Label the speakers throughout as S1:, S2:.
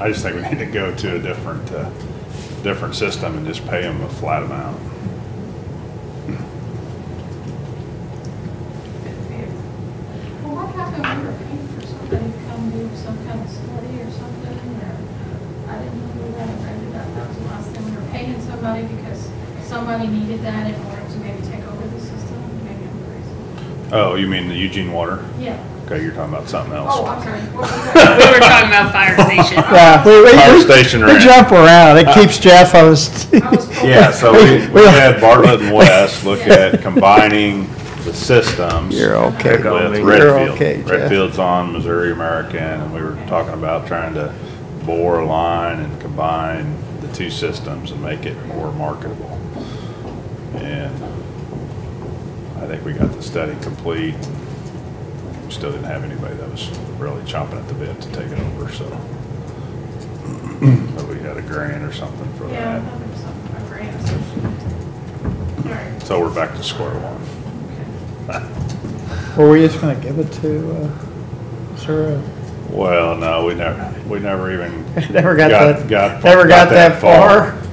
S1: I just think we need to go to a different, uh, different system and just pay them a flat amount.
S2: Well, what happened when we were paying for somebody to come do some kind of study or something, or, uh, I didn't know that, I did that, that was the last thing, we were paying somebody because somebody needed that in order to maybe take over the system, maybe I'm crazy.
S1: Oh, you mean the Eugene Water?
S2: Yeah.
S1: Okay, you're talking about something
S2: Oh,
S1: else.
S2: I'm sorry. What was that?
S3: We were talking about fire station.
S4: Yeah, we, we,
S1: Fire
S4: we-
S1: station
S4: we
S1: rent.
S4: jump around, it keeps Jeff host.
S2: I was told-
S1: Yeah, so we, we had Bartlett and West look at combining the systems.
S4: You're okay.
S1: with
S4: You're okay,
S1: Redfield.
S4: Jeff.
S1: Redfield's on Missouri American, and we were talking about trying to bore a line and combine the two systems and make it more marketable. And I think we got the study complete. We still didn't have anybody that was really chomping at the bit to take it over, so. But we had a grant or something for
S2: Yeah, I
S1: that.
S2: thought there was something, I ran, so. All right,
S1: So we're back to square one.
S2: okay.
S4: Were we just gonna give it to, uh, Sarah?
S1: Well, no, we never, we never even.
S4: Never got
S1: got-
S4: that, never got that far.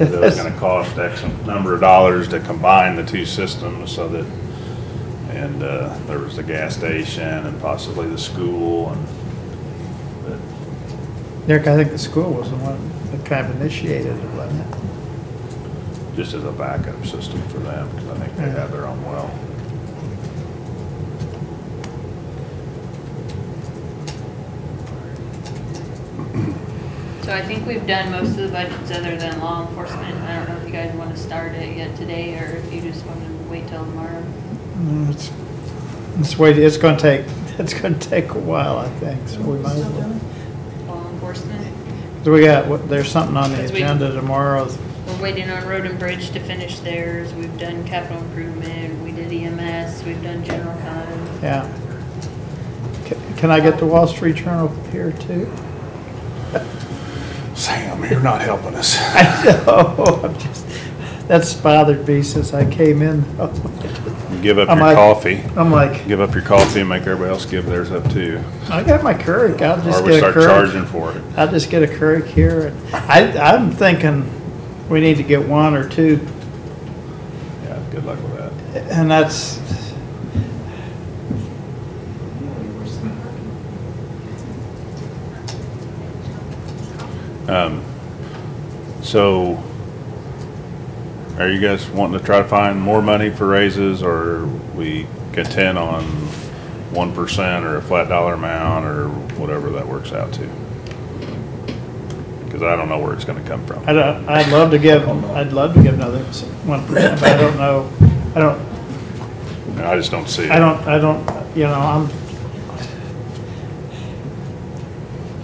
S1: It was gonna cost X number of dollars to combine the two systems so that, and, uh, there was the gas station and possibly the school and, but
S4: Derek, I think the school was the one that kind of initiated it, wasn't it?
S1: just as a backup system for them, because I think they have their own well.
S3: So I think we've done most of the budgets other than law enforcement. I don't know if you guys want to start it yet today or if you just want to wait till tomorrow.
S4: Mm, It's, it's wait, it's gonna take, it's gonna take a while, I think, so we might as well.
S3: Law enforcement.
S4: So we got, what- there's something on the
S3: Because we-
S4: agenda tomorrow.
S3: We're waiting on road and bridge to finish theirs. We've done capital improvement. We did EMS. We've done general fund.
S4: Yeah. Ca- Can I get the Wall Street Journal here too?
S1: Sam, you're not helping us.
S4: I know, I'm just, that's bothered me since I came in.
S1: Give up
S4: I'm
S1: your
S4: like-
S1: coffee,
S4: I'm like,
S1: give up your coffee and make everybody else give theirs up too.
S4: I got my Keurig, I'll
S1: Or
S4: just
S1: we
S4: get a
S1: start charging
S4: Keurig.
S1: for it.
S4: I'll just get a Keurig here. and I, I'm thinking we need to get one or two
S1: Yeah, good luck with that.
S4: And that's,
S1: Um, So, are you guys wanting to try to find more money for raises, or we contend on one percent or a flat dollar amount, or whatever that works out to? Because I don't know where it's gonna come from.
S4: I don't, I'd love to give, I'd love to give another one percent, but I don't know, I don't,
S1: And I just don't see it.
S4: I don't, I don't, you know, I'm,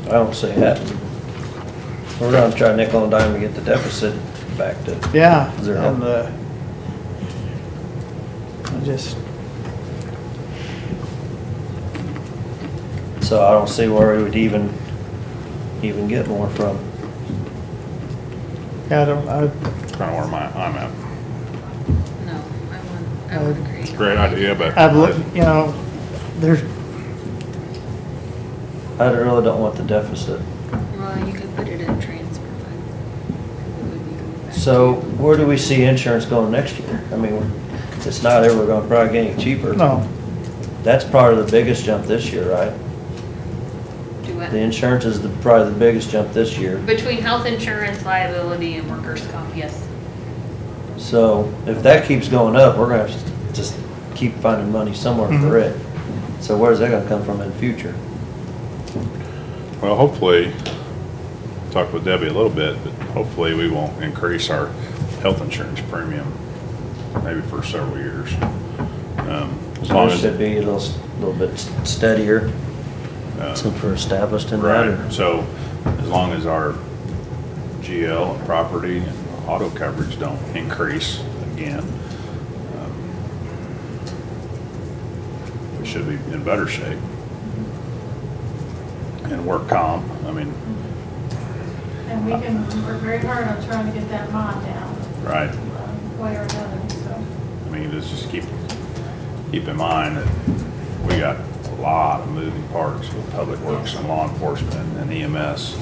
S5: I don't see that. We're gonna try nickel and dime to get the deficit back to,
S4: yeah.
S5: Zero.
S4: And, uh, I just,
S5: so I don't see where we would even, even get more from.
S4: I don't, I,
S1: Kinda where my, I'm at.
S3: No, I wouldn't, I would agree.
S1: It's a great idea, but.
S4: I've looked, you know, there's,
S5: I really don't want the deficit.
S3: Well, you could put it in transfer fund. It would be going back to-
S5: So where do we see insurance going next year? I mean, we're- it's not ever gonna probably get any cheaper.
S4: no,
S5: That's probably the biggest jump this year, right?
S3: Do what?
S5: The insurance is the, probably the biggest jump this year.
S3: Between health insurance, liability, and workers' comp, yes.
S5: So if that keeps going up, we're gonna have to just keep finding money somewhere for
S4: Mhm.
S5: it. So where's that gonna come from in the future?
S1: Well, hopefully, talk with Debbie a little bit, but hopefully we won't increase our health insurance premium maybe for several years. Um, As long
S5: So it
S1: as,
S5: should be a little, s- little bit s- steadier,
S1: uh,
S5: since we're established in that. or-
S1: right, so as long as our GL and property and auto coverage don't increase again, um, we should be in better shape. And work comp, I mean,
S2: And we can, we're very hard on trying to get that mod down,
S1: right,
S2: um, way or another, so.
S1: I mean, let's just keep, keep in mind that we got a lot of moving parts with public works and E law enforcement and EMS.